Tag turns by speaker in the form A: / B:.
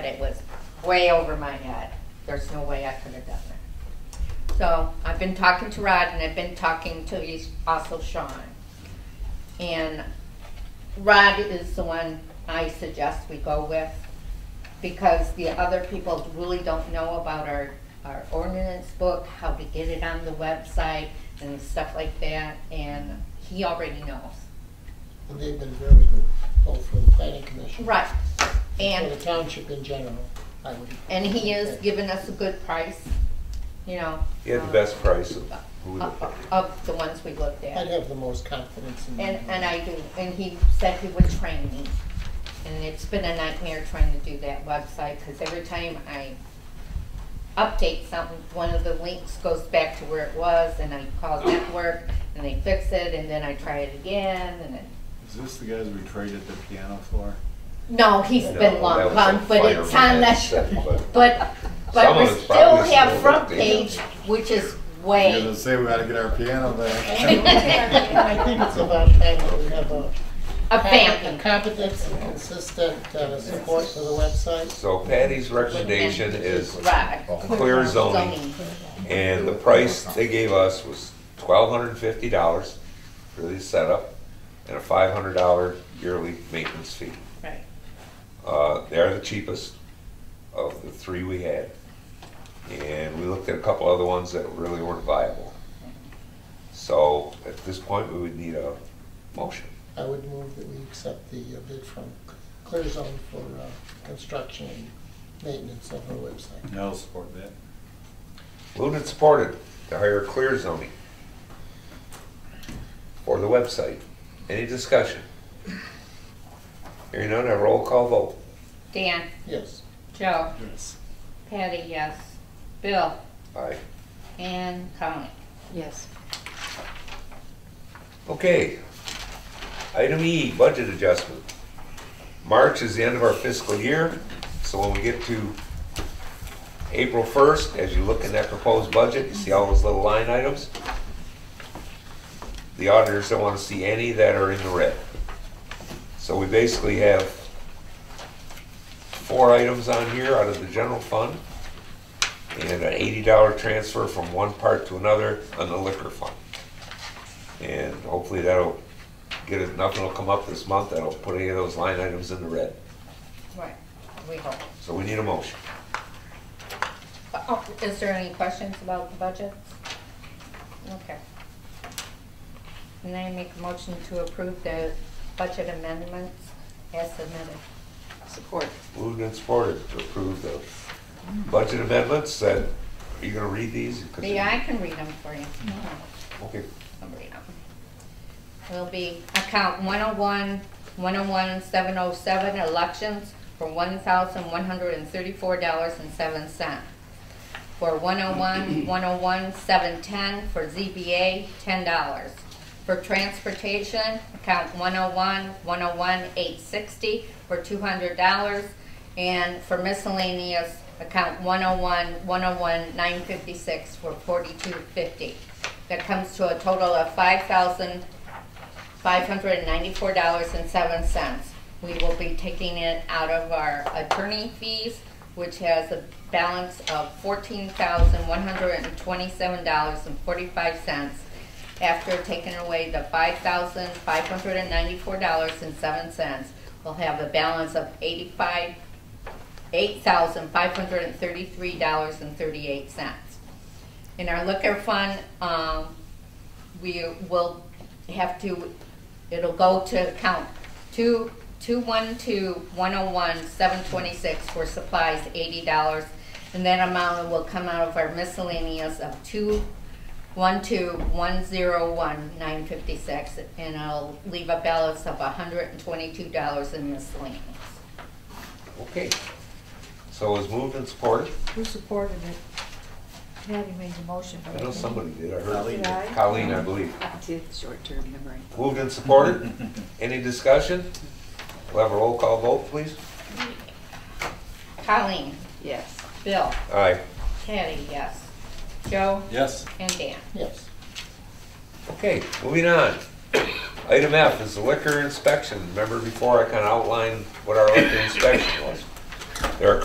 A: it was way over my head. There's no way I could have done it. So I've been talking to Rod and I've been talking to he's also Sean. And Rod is the one I suggest we go with because the other people really don't know about our, our ordinance book, how to get it on the website and stuff like that, and he already knows.
B: And they've been very good, both for the planning commission.
A: Right,
B: For the
A: and,
B: township in general, I would.
A: and he is giving us a good price, you know.
C: He had
A: um,
C: the best price of who we
A: Of,
C: looked at.
A: of- of the ones we looked
B: I'd
A: at,
B: have the most confidence in.
A: and, and I do, and he said he would train me. And it's been a nightmare trying to do that website, because every time I update something, one of the links goes back to where it was, and I call network, and they fix it, and then I try it again, and then,
D: Is this the guys we traded the piano for?
A: no, he's
C: No,
A: been
C: that
A: long
C: was
A: gone,
C: a
A: but
C: fire
A: it's
C: we had
A: on that,
C: set, but-
A: but, but
C: Some
A: we
C: of it's probably
A: still have
C: still
A: front
C: there.
A: page, which is
D: You're gonna
A: way,
D: say we gotta get our piano back.
B: I
A: a
B: think it's about time that we have a.
A: banking.
B: a Competent and consistent uh, support for the website.
C: So Patty's recommendation is
A: Right.
C: clear zoning, and the price they gave us was twelve hundred and fifty dollars for the setup, and a five hundred dollar yearly maintenance fee.
A: Right.
C: Uh, They're the cheapest of the three we had. And we looked at a couple other ones that really weren't viable. So at this point, we would need a motion.
B: I would move that we accept the uh, bid from Clear Zone for uh, construction and maintenance of our website.
D: No, support that.
C: Moved and supported to hire Clear Zoning for the website. Any discussion? Hearing none, a roll call vote.
A: Dan,
B: Yes.
A: Joe,
D: Yes.
A: Patty, yes, Bill,
C: Aye.
A: and Colleen.
E: Yes.
C: Okay. Item E, budget adjustment. March is the end of our fiscal year, so when we get to April 1st, as you look in that proposed budget, you see all those little line items? The auditors don't want to see any that are in the red. So we basically have four items on here out of the general fund and an $80 transfer from one part to another on the liquor fund. And hopefully that'll get it, nothing will come up this month that'll put any of those line items in the red.
A: Right, we hope.
C: So we need a motion.
A: Oh, Is there any questions about the budget? Okay. And I make a motion to approve the budget amendments as submitted.
E: Support.
C: Moved and supported to approve the budget amendments that, are you gonna read these? 'Cause you-
A: Yeah, I can read them for you.
C: Okay,
A: I'll read them. Will be account 101, 101, 707, elections for $1,134.07. For 101, 101, 710, for ZBA, $10. For transportation, account 101, 101, 860, for $200. And for miscellaneous, account 101, 101, 956, for $42.50. That comes to a total of $5,594.07. We will be taking it out of our attorney fees, which has a balance of $14,127.45 after taking away the $5,594.07. We'll have a balance of 85 $8,533.38. In our liquor fund, um, we will have to, it'll go to account two, two one two, one oh one, seven twenty-six for supplies, eighty dollars. And that amount will come out of our miscellaneous of two, one two, one zero one, nine fifty-six. And I'll leave a balance of hundred and twenty-two dollars in miscellaneous.
C: okay. So it was moved and supported.
E: Who supported it? Patty made the motion, but.
C: I know somebody did, I
D: Colleen
C: heard.
D: did.
E: I-
C: Colleen, I believe.
E: I did short-term memory.
C: Moved and supported. Any discussion? We'll have a roll call vote, please.
A: Colleen,
E: Yes.
A: Bill,
C: Aye.
A: Patty, yes. Joe
D: Yes.
A: and Dan.
B: Yes.
C: Okay, moving on. Item F is the liquor inspection. Remember before I kind of outlined what our liquor inspection was? There are a